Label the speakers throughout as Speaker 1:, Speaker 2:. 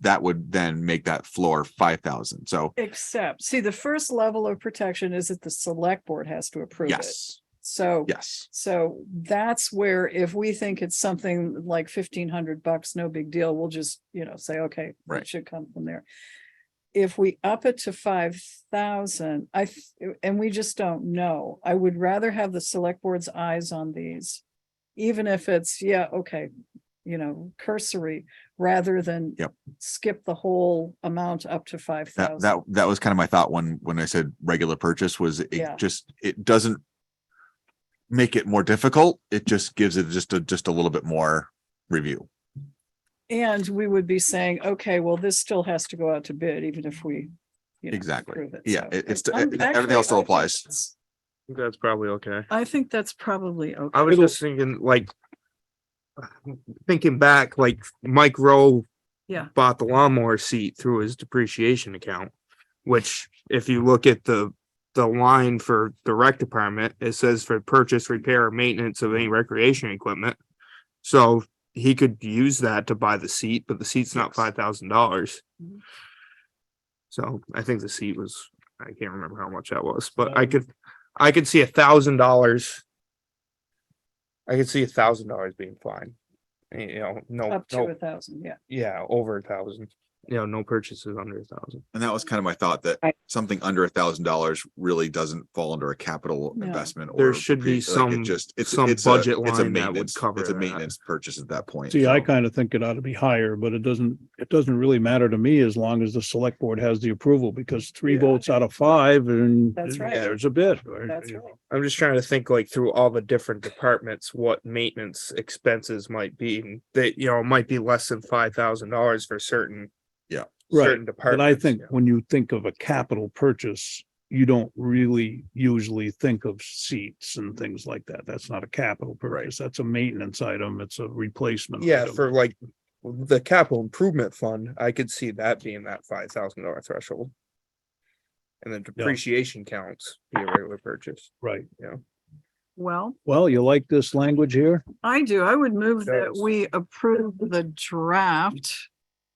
Speaker 1: that would then make that floor five thousand. So
Speaker 2: Except, see, the first level of protection is that the select board has to approve it.
Speaker 1: yes,
Speaker 2: So,
Speaker 1: yes,
Speaker 2: so that's where if we think it's something like fifteen hundred bucks, no big deal, we'll just, you know, say, okay,
Speaker 1: Right.
Speaker 2: it should come from there. If we up it to five thousand, I, th- and we just don't know, I would rather have the select board's eyes on these. Even if it's, yeah, okay, you know, cursory, rather than
Speaker 1: Yep.
Speaker 2: skip the whole amount up to five
Speaker 1: that
Speaker 2: thousand.
Speaker 1: that that was kind of my thought when when I said regular purchase was
Speaker 2: Yeah.
Speaker 1: it just it doesn't make it more difficult. It just gives it just a just a little bit more review.
Speaker 2: And we would be saying, okay, well, this still has to go out to bid, even if we. you know,
Speaker 1: Exactly.
Speaker 2: approve it.
Speaker 1: Yeah,
Speaker 2: So
Speaker 1: it- it's-
Speaker 2: I'm-
Speaker 1: it- everything
Speaker 2: actually,
Speaker 1: else still
Speaker 2: I think
Speaker 1: applies.
Speaker 2: that's-
Speaker 3: think That's probably okay.
Speaker 2: I think that's probably okay.
Speaker 3: I was just thinking like. Thinking back, like Mike Rowe.
Speaker 2: Yeah.
Speaker 3: Bought the lawnmower seat through his depreciation account, which if you look at the. The line for the rec department, it says for purchase, repair, or maintenance of any recreation equipment. So he could use that to buy the seat, but the seat's not
Speaker 1: Yes.
Speaker 3: five thousand dollars.
Speaker 2: Mhm.
Speaker 3: So I think the seat was, I can't remember how much that was, but I could, I could see a thousand dollars. I could see a thousand dollars being fine. Y- You know, no,
Speaker 2: Up to a
Speaker 3: no,
Speaker 2: thousand, yeah.
Speaker 3: yeah, over a thousand, you know, no purchases under a thousand.
Speaker 1: And that was kind of my thought that
Speaker 4: Right.
Speaker 1: something under a thousand dollars really doesn't fall under a capital
Speaker 2: No.
Speaker 1: investment.
Speaker 3: There
Speaker 1: or
Speaker 3: should be
Speaker 1: depre- like, it
Speaker 3: some-
Speaker 1: Just, it's,
Speaker 3: some
Speaker 1: it's a, it's
Speaker 3: budget
Speaker 1: a
Speaker 3: line that would
Speaker 1: maintenance,
Speaker 3: cover
Speaker 1: it's a
Speaker 3: that.
Speaker 1: maintenance purchase at that point.
Speaker 5: See, I
Speaker 1: so-
Speaker 5: kind of think it ought to be higher, but it doesn't, it doesn't really matter to me as long as the select board has the approval because three
Speaker 3: Yeah.
Speaker 5: votes out of five and
Speaker 2: That's right.
Speaker 5: there's a bid. or-
Speaker 2: That's right.
Speaker 3: I'm just trying to think like through all the different departments, what maintenance expenses might be, and that, you know, it might be less than five thousand dollars for certain.
Speaker 1: Yeah.
Speaker 3: Certain
Speaker 5: But
Speaker 3: departments.
Speaker 5: I think
Speaker 3: yeah.
Speaker 5: when you think of a capital purchase, you don't really usually think of seats and things like that. That's not a capital purchase. That's a maintenance item. It's a replacement.
Speaker 3: Yeah,
Speaker 5: item.
Speaker 3: for like the capital improvement fund, I could see that being that five thousand dollar threshold. And then depreciation counts be a regular purchase.
Speaker 5: Right.
Speaker 2: Well,
Speaker 5: Well, you like this language here?
Speaker 2: I do. I would move that
Speaker 3: Does.
Speaker 2: we approve the draft,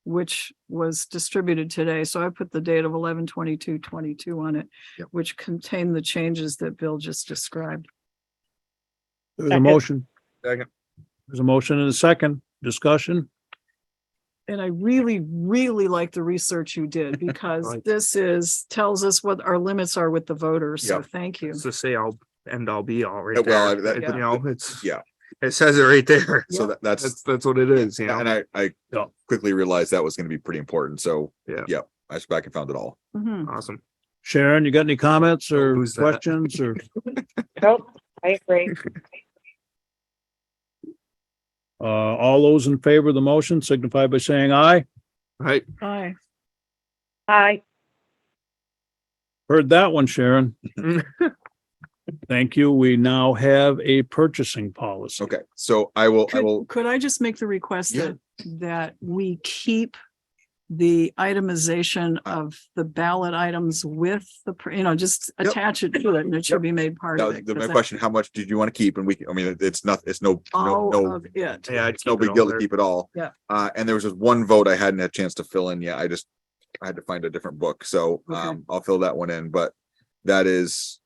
Speaker 2: which was distributed today. So I put the date of eleven twenty-two twenty-two on it,
Speaker 1: Yep.
Speaker 2: which contained the changes that Bill just described.
Speaker 5: There's a
Speaker 4: Second.
Speaker 5: motion.
Speaker 3: Second.
Speaker 5: There's a motion and a second discussion.
Speaker 2: And I really, really like the research you did because
Speaker 3: Right.
Speaker 2: this is, tells us what our limits are with the voters. So
Speaker 1: Yep.
Speaker 2: thank you.
Speaker 3: It's the say all end all be all
Speaker 1: Yeah,
Speaker 3: right
Speaker 1: well,
Speaker 3: there.
Speaker 1: I- that-
Speaker 3: You know, it's.
Speaker 1: Yeah.
Speaker 3: It says it right there.
Speaker 1: So
Speaker 2: Yeah.
Speaker 1: that, that's,
Speaker 3: That's, that's what it is, you
Speaker 1: and
Speaker 3: know?
Speaker 1: I, I
Speaker 5: Yeah.
Speaker 1: quickly realized that was going to be pretty important. So,
Speaker 3: Yeah.
Speaker 1: yeah, I just back and found it all.
Speaker 2: Mhm.
Speaker 3: Awesome.
Speaker 5: Sharon, you got any comments or
Speaker 3: lose that.
Speaker 5: questions or?
Speaker 4: Nope, I agree.
Speaker 5: Uh, all those in favor of the motion signify by saying aye.
Speaker 3: All right.
Speaker 2: Aye.
Speaker 4: Aye,
Speaker 5: Heard that one, Sharon. Thank you. We now have a purchasing policy.
Speaker 1: Okay. So I will, I
Speaker 2: Could,
Speaker 1: will,
Speaker 2: could I just make the request
Speaker 1: Yeah.
Speaker 2: that, that we keep the itemization
Speaker 1: Uh.
Speaker 2: of the ballot items with the, pr- you know, just
Speaker 1: Yep.
Speaker 2: attach it to it and it should be made part
Speaker 1: that
Speaker 2: of
Speaker 1: was
Speaker 2: it.
Speaker 1: the-
Speaker 2: 'cause
Speaker 1: my
Speaker 2: I-
Speaker 1: question, how much did you want to keep? And we, can- I mean, it's not, it's no, no,
Speaker 2: All
Speaker 1: no
Speaker 2: of it.
Speaker 3: Yeah. I'd
Speaker 1: it's no
Speaker 3: keep it
Speaker 1: big
Speaker 3: all
Speaker 1: deal to
Speaker 3: there.
Speaker 1: keep it all.
Speaker 2: Yeah.
Speaker 1: Uh, and there was just one vote I hadn't had a chance to fill in yet. I just, I had to find a different book, so,
Speaker 2: Okay.
Speaker 1: um, I'll fill that one in, but that is,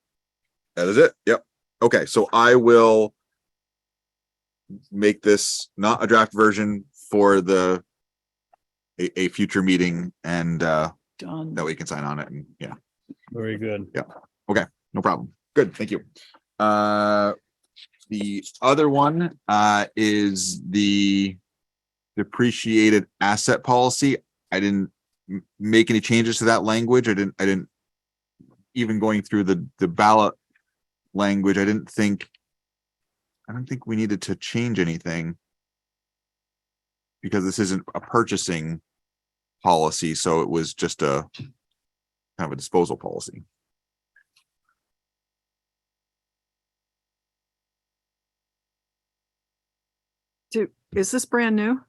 Speaker 1: that is it. Yep. Okay, so I will make this not a draft version for the a, a future meeting and, uh,
Speaker 2: Done.
Speaker 1: that way you can sign on it and, yeah,
Speaker 5: Very good.
Speaker 1: no problem. Good, thank you. Uh, the other one, uh, is the depreciated asset policy. I didn't m- make any changes to that language. I didn't, I didn't even going through the, the ballot language, I didn't think I don't think we needed to change anything because this isn't a purchasing policy, so it was just a kind of a disposal policy.
Speaker 2: Do- Is this brand new?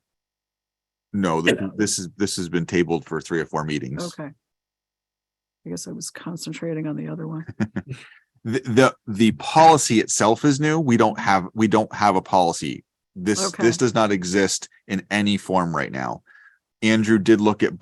Speaker 1: No, th- this is, this has been tabled for three or four meetings.
Speaker 2: Okay. I guess I was concentrating on the other one.
Speaker 1: The, the, the policy itself is new. We don't have, we don't have a policy. This,
Speaker 2: Okay.
Speaker 1: this does not exist in any form right now. Andrew did look at